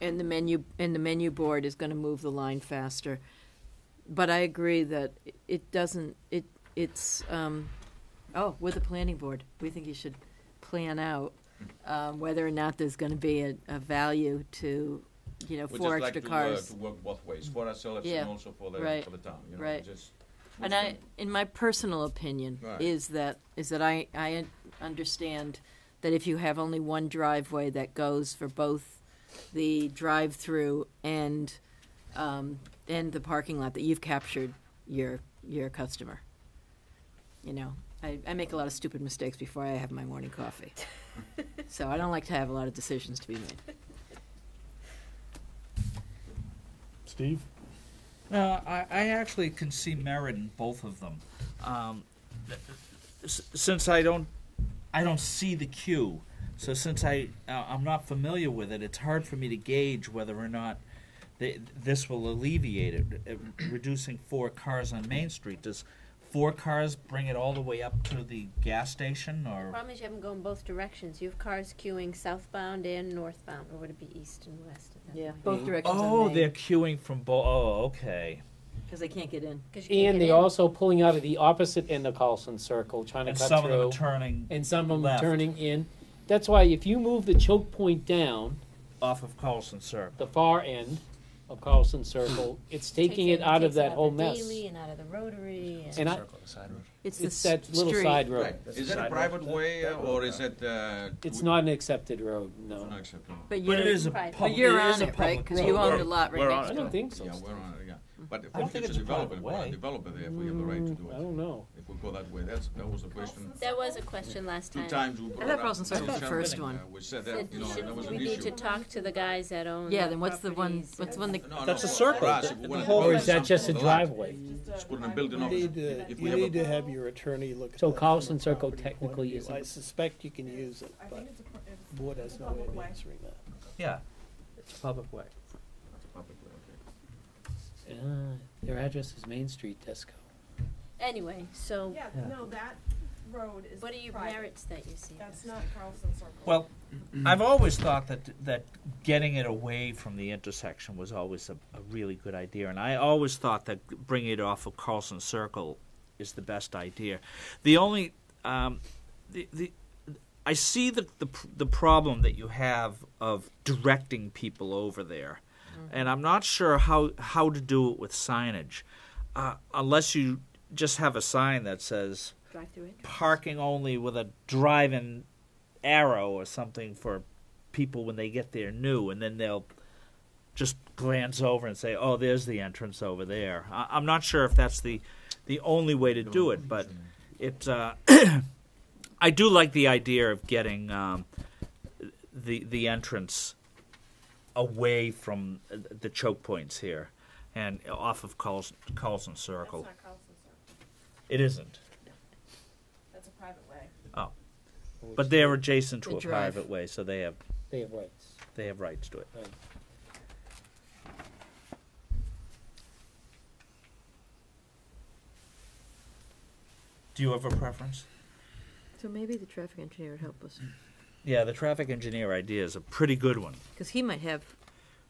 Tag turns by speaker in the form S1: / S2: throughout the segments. S1: And the menu, and the menu board is gonna move the line faster. But I agree that it doesn't, it, it's, um, oh, with the planning board, we think you should plan out, um, whether or not there's gonna be a, a value to, you know,
S2: We
S1: four
S2: just like
S1: extra
S2: to, uh,
S1: cars.
S2: To work both ways, for ourselves
S1: Yeah.
S2: and also for the,
S1: Right.
S2: for the town, you know,
S1: Right.
S2: just.
S1: And I, in my personal opinion,
S2: Right.
S1: is that, is that I, I un- understand that if you have only one driveway that goes for both the drive-through and, um, and the parking lot, that you've captured your, your customer. You know, I, I make a lot of stupid mistakes before I have my morning coffee. So I don't like to have a lot of decisions to be made.
S3: Steve?
S4: No, Uh, I, I actually can see merit in both of them. Um, s- since I don't, I don't see the queue. So since I, uh, I'm not familiar with it, it's hard for me to gauge whether or not th- this will alleviate it. Uh, Reducing four cars on Main Street does four cars bring it all the way up to the gas station, or
S5: Problem is you haven't gone both directions. You have cars queuing southbound and northbound, or would it be east and west at that
S1: Yeah,
S5: point?
S1: both directions
S4: oh,
S1: on
S4: they're
S1: Main,
S4: queuing from both. Oh, okay.
S1: because they can't get in.
S5: 'Cause you can't
S6: And
S5: get
S6: they're
S5: in.
S6: also pulling out of the opposite end of Carlson Circle, trying to
S4: And
S6: cut
S4: some of them
S6: through.
S4: are turning
S6: and some of them
S4: left.
S6: turning in. That's why if you move the choke point down,
S4: off of Carlson Circle.
S6: the far end of Carlson Circle, it's taking it
S5: Hmm. Takes
S6: out of
S5: takes
S6: that whole
S5: the
S6: mess.
S5: Daily and out of the rotary. And
S6: And I,
S1: It's the
S6: it's that little
S1: street.
S6: side road.
S2: Right, is that a
S4: Sidewalk.
S2: private way uh, or is it, uh?
S6: It's
S2: we-
S6: not an accepted road, no.
S2: Not acceptable.
S1: But
S4: But it
S1: you're,
S4: is a
S5: Right. But
S1: but
S4: public.
S1: you're
S4: it is
S1: on
S4: a
S1: it, right?
S4: public
S1: Because
S4: road.
S1: you own
S2: We're-
S1: a lot right
S2: we're
S1: next
S2: on
S6: I
S1: to
S6: don't
S1: it.
S6: think so.
S2: Yeah,
S6: Steve.
S2: we're on, it, yeah, but
S4: I
S2: for
S4: don't think
S2: future
S4: it's a private
S2: development, for a
S4: way.
S2: developer, they have, we have the right to do
S6: Mm, I
S2: it,
S6: don't know.
S2: if we go that way, that's, that was the question.
S5: That was a question last
S2: Two
S5: time.
S2: times we brought
S1: thought
S2: up.
S1: Carlson Circle was the
S2: Sharon,
S1: first
S2: uh,
S1: one.
S2: We said
S5: Said
S2: that, you know,
S5: should-
S2: that was
S5: we
S2: an
S5: need to
S2: issue.
S5: talk to the guys that own.
S1: Yeah,
S5: the
S1: then what's the one,
S5: properties.
S1: what's the one that
S2: No, no,
S4: That's a
S2: for
S4: circle.
S2: us, if we
S4: The
S2: wanna
S4: whole-
S2: build
S6: Or is that just a
S2: something,
S6: driveway?
S2: Just put in a building
S7: You need
S2: office,
S7: to,
S2: if we
S7: you
S2: have a-
S7: need to have your attorney look at
S6: So
S7: that from a
S6: Carlson Circle
S7: property point of
S6: technically
S7: view.
S6: isn't-
S7: I suspect you can use it,
S8: I
S7: but
S8: think it's a, pr- it's-
S7: board has no way
S8: Public
S7: of
S8: way.
S7: answering that.
S4: Yeah.
S6: It's public way.
S2: Public way, okay.
S6: Uh, their address is Main Street, Tesco.
S5: Anyway, so
S8: yeah, no, that road is
S5: what are your
S8: private.
S5: merits that you see?
S8: That's not Carlson Circle.
S4: Well, I've always thought that that getting it away from the intersection was always a, a really good idea, and I always thought that bringing it off of Carlson Circle is the best idea. The only um, the, the I see the, the pr- the problem that you have of directing people over there,
S1: Mm-hmm.
S4: and I'm not sure how how to do it with signage, uh, unless you just have a sign that says
S5: Drive through it.
S4: parking only with a driving arrow or something for people when they get there new, and then they'll just glance over and say, "Oh, there's the entrance over there." I- I'm not sure if that's the the only way to do it, but it. Uh, I do like the idea of getting um, the the entrance away from uh, the choke points here and off of Carlson, Carlson
S8: That's
S4: Circle.
S8: not Carlson Circle.
S4: It isn't.
S8: That's a private way.
S4: But they're adjacent
S1: They
S4: to a
S1: drive.
S4: private way, so they have
S6: They have rights.
S4: they have rights to it.
S6: Right.
S4: Do you have a preference?
S1: So maybe the traffic engineer would help us,
S4: Yeah, the traffic engineer idea is a pretty good one.
S1: because he might have,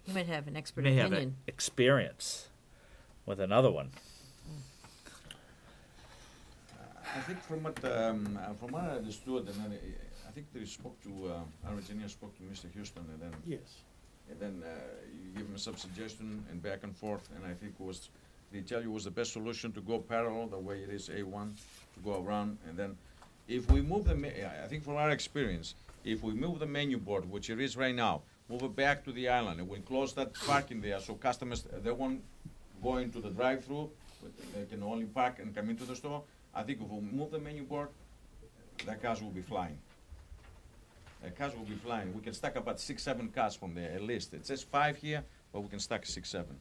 S1: he might have an expert
S4: May have
S1: opinion.
S4: e- experience with another one.
S2: I think from what, um, uh, from what I understood, and then I, I think they spoke to, uh, our engineer spoke to Mr. Houston, and then,
S7: Yes.
S2: and then, uh, you give him some suggestion and back and forth, and I think was, they tell you was the best solution to go parallel, the way it is A one, to go around, and then if we move the, ma- I I think from our experience, if we move the menu board, which it is right now, move it back to the island, and we close that parking there, so customers, uh, they won't go into the drive-through, but they can only park and come into the store, I think if we move the menu board, the cars will be flying. The Uh, cars will be flying. We can stack about six, seven cars from there at least. It says five here, but we can stack six, seven.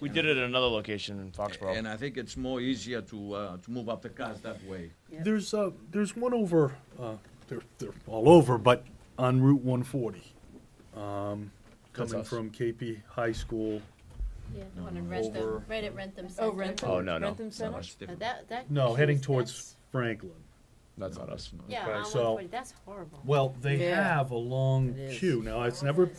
S9: We did it at another location in Foxborough.
S2: And I think it's more easier to uh, to move up the cars that way.
S3: There's, uh, there's one over, uh, they're, they're all over, but on Route one forty. Um,
S9: That's
S3: coming
S9: us.
S3: from KP High School.
S5: Yeah, the one in Rentham,
S3: Over.
S5: right at Rentham Center.
S1: Oh, Rentham.
S9: Oh, no, no.
S1: Rentham Center?
S2: Much
S5: Uh,
S2: different.
S5: That, that.
S3: No, heading
S5: queue's-
S3: towards Franklin.
S9: That's not us.
S5: that's- Yeah,
S3: Okay,
S5: on one
S3: so-
S5: forty, that's horrible.
S3: Well, they
S1: Yeah.
S3: have a long
S1: It is.
S3: queue. Now, it's never